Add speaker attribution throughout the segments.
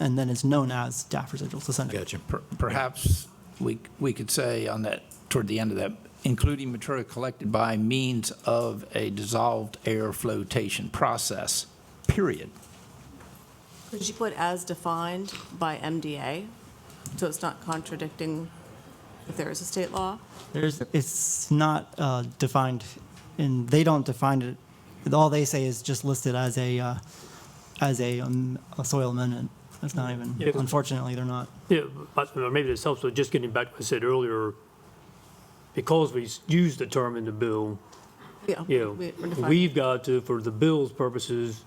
Speaker 1: and then is known as DAF residuals, the Senate.
Speaker 2: Gotcha.
Speaker 3: Per- Perhaps we, we could say on that, toward the end of that, including material collected by means of a dissolved air flotation process, period.
Speaker 4: Could you put as defined by MDA, so it's not contradicting if there is a state law?
Speaker 1: There's, it's not uh, defined, and they don't define it. All they say is just listed as a, uh, as a, um, a soil amendment. That's not even,
Speaker 5: Yeah.
Speaker 1: unfortunately, they're not.
Speaker 5: Yeah, but or maybe this helps, but just getting back to what I said earlier, because we s- use the term in the bill, yeah,
Speaker 4: we- we're defining-
Speaker 5: we've got to, for the bill's purposes,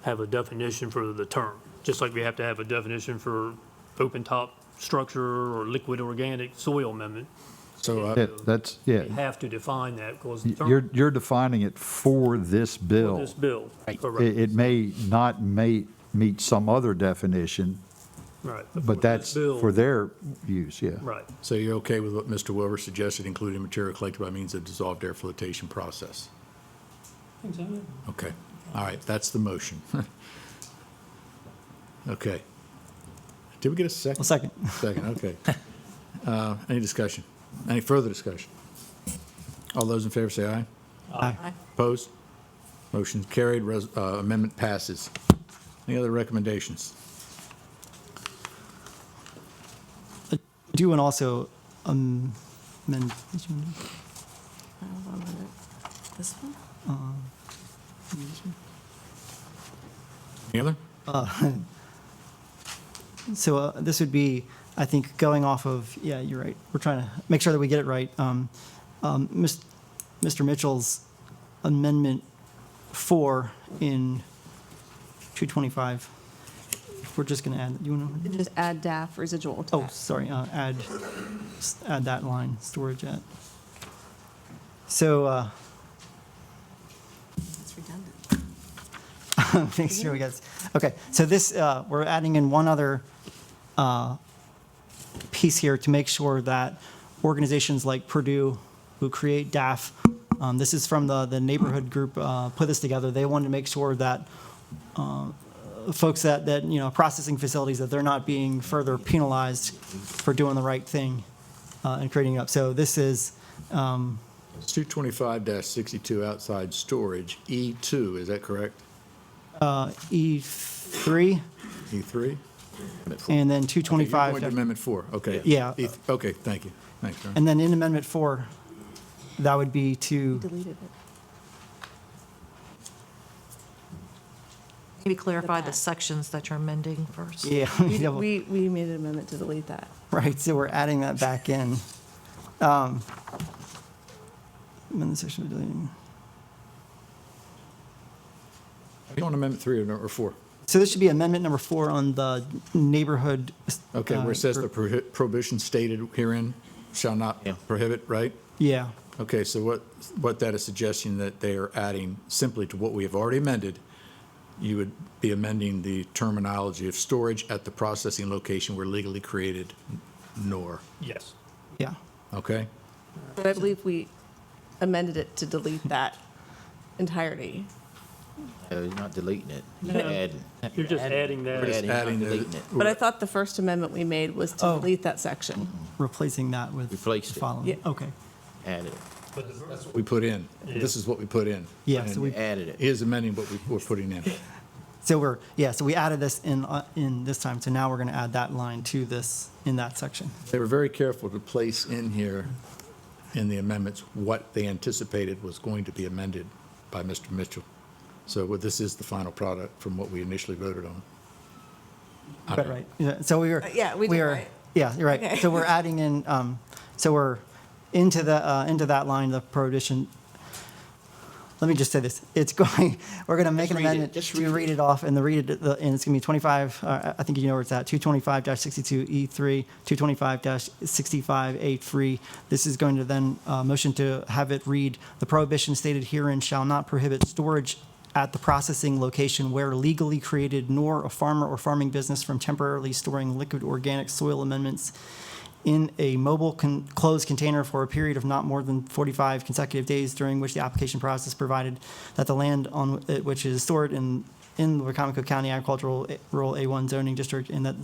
Speaker 5: have a definition for the term, just like we have to have a definition for open-top structure or liquid organic soil amendment.
Speaker 2: So uh,
Speaker 6: Yeah, that's, yeah,
Speaker 5: We have to define that because the
Speaker 6: you're,
Speaker 5: term
Speaker 6: you're defining it for this
Speaker 5: of
Speaker 6: bill.
Speaker 5: this bill.
Speaker 6: It,
Speaker 5: Correct,
Speaker 6: it may not may meet some other definition,
Speaker 5: right. for
Speaker 6: but
Speaker 5: this
Speaker 6: that's
Speaker 5: bill,
Speaker 6: for their use, yeah.
Speaker 5: Right.
Speaker 2: so you're okay with what Mr. Wilbur suggested, including material collected by means of dissolved air flotation process? Okay. All right, that's the motion. Okay. Did we get a
Speaker 1: Well,
Speaker 2: second?
Speaker 1: second,
Speaker 2: Second, okay. Uh, Any discussion? Any further discussion? All those in favor say aye.
Speaker 4: Aye.
Speaker 2: Opposed? Motion carried, Res- uh, amendment passes. Any other recommendations?
Speaker 1: do and also, um, amend- did you amend-
Speaker 4: Hold on a minute. This one?
Speaker 2: Any other?
Speaker 1: So uh, this would be, I think, going off of, yeah, you're right. We're trying to make sure that we get it right. Um, um, Mis- Mr. Mitchell's amendment four in 225. We're just going to add, you want to?
Speaker 4: Just add DAF residual to
Speaker 1: Oh,
Speaker 4: that.
Speaker 1: sorry, uh, add, s- add that line, storage at. So, uh,
Speaker 4: It's redundant.
Speaker 1: make sure we get, okay, so this, uh, we're adding in one other, uh, piece here to make sure that organizations like Purdue who create DAF, um, this is from the, the neighborhood group, uh, put this together. They wanted to make sure that, uh, folks that, that, you know, processing facilities, that they're not being further penalized for doing the right thing, uh, and creating it up. So this is,
Speaker 2: It's 225-62 outside storage, E2, is that correct?
Speaker 1: uh, E three
Speaker 2: E3?
Speaker 1: and then two
Speaker 2: Okay, you're
Speaker 1: twenty-five.
Speaker 2: going to Amendment 4, okay.
Speaker 1: Yeah.
Speaker 2: E- Okay, thank you. Thanks, Aaron.
Speaker 1: And then in Amendment 4, that would be to,
Speaker 4: Deleted it.
Speaker 7: Maybe clarify the sections that you're amending first.
Speaker 1: yeah, double-
Speaker 8: We, we made an amendment to delete that.
Speaker 1: right, so we're adding that back in. Um, amend the section of deleting.
Speaker 2: Are you on Amendment 3 or no- or 4?
Speaker 1: So this should be Amendment Number 4 on the neighborhood.
Speaker 2: Okay, where
Speaker 1: uh,
Speaker 2: it says the prohi- prohibition stated herein shall not prohibit, right?
Speaker 1: Yeah,
Speaker 2: Okay, so what, what that is suggesting that they are adding simply to what we have already amended, you would be amending the terminology of storage at the processing location where legally created nor,
Speaker 5: Yes.
Speaker 1: yeah.
Speaker 2: okay?
Speaker 8: But I believe we amended it to delete that entirety.
Speaker 9: No, you're not deleting it. You're adding.
Speaker 5: You're just adding that.
Speaker 9: You're adding, you're not
Speaker 2: Adding the-
Speaker 9: deleting it.
Speaker 8: But I thought the first amendment we made was to
Speaker 1: Oh.
Speaker 8: delete that section.
Speaker 1: Replacing that with the
Speaker 9: Replaced it.
Speaker 1: following.
Speaker 8: Yeah.
Speaker 1: Okay,
Speaker 9: Add it.
Speaker 2: We put in, this is what we put in.
Speaker 1: yeah, so
Speaker 9: We
Speaker 1: we,
Speaker 9: added it.
Speaker 2: He is amending what we, we're putting in.
Speaker 1: so we're, yeah, so we added this in, uh, in this time, so now we're going to add that line to this, in that section.
Speaker 2: They were very careful to place in here, in the amendments, what they anticipated was going to be amended by Mr. Mitchell. So well, this is the final product from what we initially voted on.
Speaker 1: Right, right. Yeah, So we were.
Speaker 8: Uh, yeah, we did
Speaker 1: are-
Speaker 8: right.
Speaker 1: Yeah, you're right.
Speaker 8: Okay.
Speaker 1: So we're adding in, um, so we're into the, uh, into that line, the prohibition. Let me just say this. It's going, we're going to make an
Speaker 9: Just read it.
Speaker 1: amendment
Speaker 9: Just
Speaker 1: to
Speaker 9: read
Speaker 1: read
Speaker 9: it.
Speaker 1: it off and the read it, the- and it's going to be 25, uh, I think you know where it's at, 225-62E3, 225-65A3. This is going to then, uh, motion to have it read, "The prohibition stated herein shall not prohibit storage at the processing location where legally created nor a farmer or farming business from temporarily storing liquid organic soil amendments in a mobile con- closed container for a period of not more than 45 consecutive days during which the application process provided that the land on wh- it which is stored in in the Wycomico County Agricultural Rural A1 zoning district in that